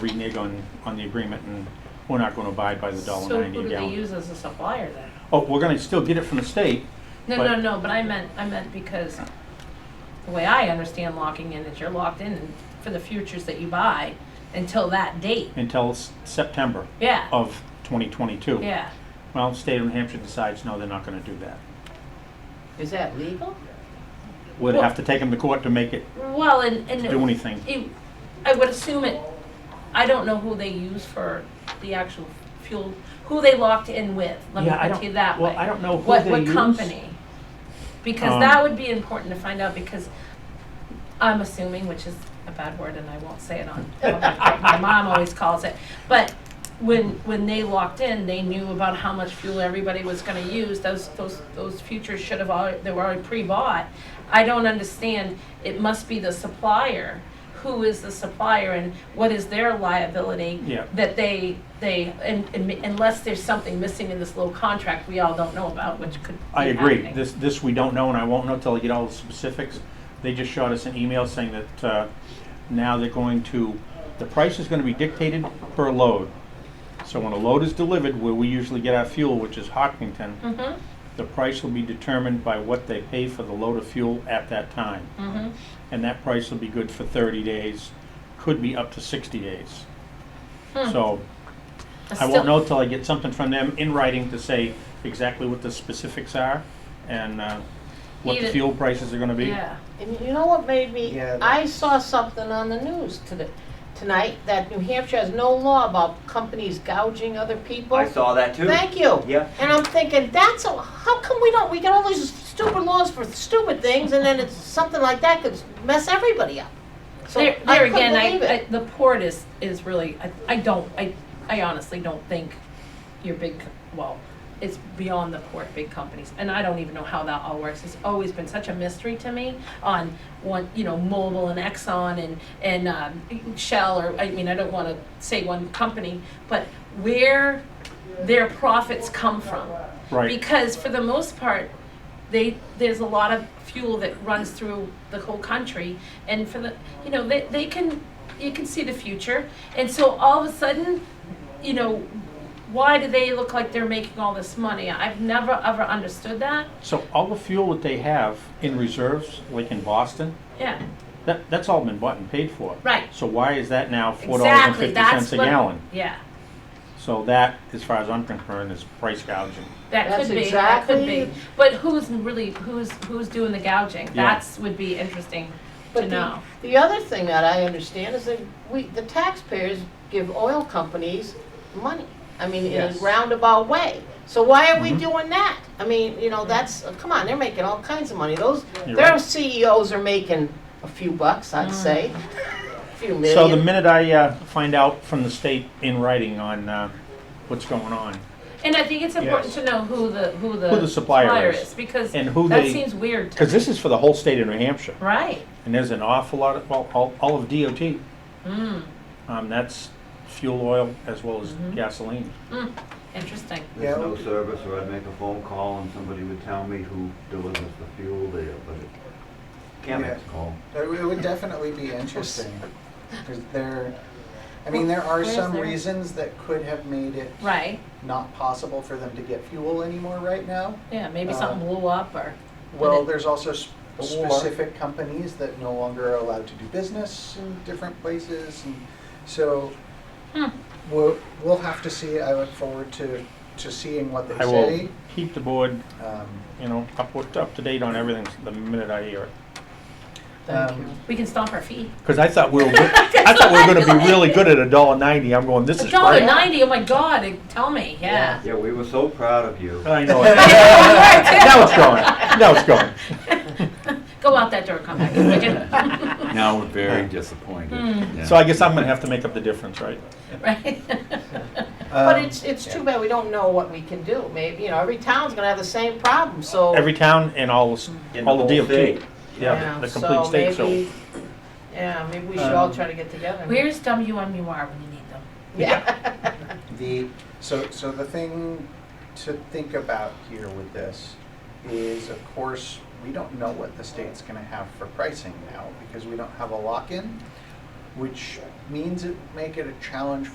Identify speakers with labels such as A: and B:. A: renege on, on the agreement and we're not gonna abide by the dollar
B: So
A: ninety
B: who
A: a
B: do they
A: gallon.
B: use as a supplier then?
A: Oh, we're gonna still get it from the state.
B: No,
A: But-
B: no, no, but I meant, I meant because the way I understand locking in is you're locked in for the futures that you buy until that date.
A: until s- September
B: Yeah, Oh.
A: of 2022.
B: yeah.
A: Well, state of New Hampshire decides, no, they're not gonna do that.
C: Is that legal?
A: We'd
B: Well-
A: have to take them to court to make it
B: Well, and, and.
A: do anything.
B: it- I would assume it, I don't know who they use for the actual fuel, who they locked in with. Let me
A: Yeah, I
B: put
A: don't-
B: it that way.
A: well, I don't know who
B: What,
A: they
B: what
A: use.
B: company? Because
A: Um,
B: that would be important to find out because I'm assuming, which is a bad word and I won't say it on, my mom always calls it. But when, when they locked in, they knew about how much fuel everybody was gonna use. Those, those, those futures should have already, they were already pre-bought. I don't understand, it must be the supplier. Who is the supplier and what is their liability?
A: Yeah.
B: That they, they, and, and unless there's something missing in this little contract we all don't know about, which could be
A: I agree.
B: happening.
A: This, this we don't know, and I won't know till I get all the specifics. They just shot us an email saying that uh, now they're going to, the price is going to be dictated per load. So when a load is delivered, where we usually get our fuel, which is Hockington,
B: Mhm,
A: the price will be determined by what they pay for the load of fuel at that time.
B: mhm.
A: And that price will be good for 30 days, could be up to 60 days.
B: Hmm.
A: So I
B: Still-
A: won't know till I get something from them in writing to say exactly what the specifics are and uh, what the
B: Even-
A: fuel prices are gonna be.
B: Yeah.
C: And you know what made me,
D: Yeah,
C: I saw something on the news today, tonight, that New Hampshire has no law about companies gouging other people.
D: I saw that too.
C: Thank you.
D: Yeah.
C: And I'm thinking, that's, a- how come we don't, we get all these stupid laws for stupid things, and then it's, something like that could mess everybody up. So
B: There,
C: I
B: there
C: couldn't
B: again,
C: believe
B: I, I,
C: it.
B: the port is, is really, I, I don't, I, I honestly don't think your big, co- well, it's beyond the port, big companies, and I don't even know how that all works. It's always been such a mystery to me on one, you know, Mobil and Exxon and, and, um, Shell, or, I mean, I don't wanna say one company, but where their profits come from.
A: Right,
B: Because for the most part, they, there's a lot of fuel that runs through the whole country, and for the, you know, they, they can, you can see the future, and so all of a sudden, you know, why do they look like they're making all this money? I've never ever understood that,
A: so all the fuel that they have in reserves, like in Boston,
B: yeah,
A: that, that's all been bought and paid for.
B: Right.
A: So why is that now four dollars and
B: exactly,
A: fifty
B: that's
A: cents a
B: what,
A: gallon?
B: yeah,
A: So that, as far as I'm concerned, is price gouging.
B: that
C: That's
B: could be, that could be.
C: exactly-
B: But who's really, who's, who's doing the gouging?
A: Yeah.
B: That's, would be interesting
C: But
B: to
C: the-
B: know.
C: The other thing that I understand is that we, the taxpayers give oil companies money. I mean, in a
A: Yes.
C: roundabout way. So why are we
A: Mhm.
C: doing that? I mean, you know, that's, come on, they're making all kinds of money. Those,
A: You're
C: their
A: right. Mm.
C: CEOs are making a few bucks, I'd say. A few
A: So the
C: million.
A: minute I uh, find out from the state in writing on uh, what's going on
B: And I think it's important to know who the who the,
A: Who the supplier is.
B: is because
A: and who
B: that
A: they,
B: seems weird. To
A: because this is for the whole state of New Hampshire.
B: Right.
A: And there's an awful lot of, well, all, all of DOT,
B: Mm,
A: um, that's fuel oil as well as
B: Mhm.
A: gasoline.
B: interesting.
E: There's
D: Yeah,
E: no
D: okay.
E: service, or I'd make a phone call and somebody would tell me who delivers the fuel there, but it can't make
D: Yeah.
E: a call.
D: It would- it would definitely be interesting, because there, I mean, there are
B: Where's
D: some
B: there-
D: reasons that could have made it
B: Right.
D: not possible for them to get fuel anymore right now.
B: Yeah. Maybe
C: Uh-huh.
D: Uh,
B: something blew up or.
D: Well,
B: it-
D: there's also s-
A: The war.
D: specific companies that no longer are allowed to do business in different places, and so
B: Hmm.
D: we'll, we'll have to see. I look forward to, to seeing what they
A: I will
D: say.
A: keep the board,
D: Um,
A: you know, up, up to date on everything the minute I hear it.
C: Thank
D: um,
C: you.
B: We can stomp our feet.
A: Because I thought we were, good- I thought we were gonna be really good at a dollar ninety, I'm going, this
B: A
A: is
B: dollar
A: great.
B: ninety. Oh my God! it- Tell me. Yeah.
E: Yeah, we were so proud of you.
A: I know it. Now it's going, now it's going.
B: Go out that door. Come back. would you?
F: Now we're very disappointed. Yeah.
A: So I guess I'm gonna have to make up the difference, right?
B: right.
C: But
D: um,
C: it's, it's too bad we don't know what we can do. Maybe, you know, every town's gonna have the same problem,
B: Oh.
C: so.
A: Every town and all,
B: Mm.
A: s-
E: In
A: all the
E: whole
A: DOT.
E: state.
A: Yeah, the the
C: so
A: complete state, so.
C: maybe- Yeah, maybe we should all
D: Um,
C: try to get together.
B: Where's WMUR when you need them?
C: Yeah.
D: The, so, so the thing to think about here with this is, of course, we don't know what the state's gonna have for pricing now, because we don't have a lock-in. which means it make it a challenge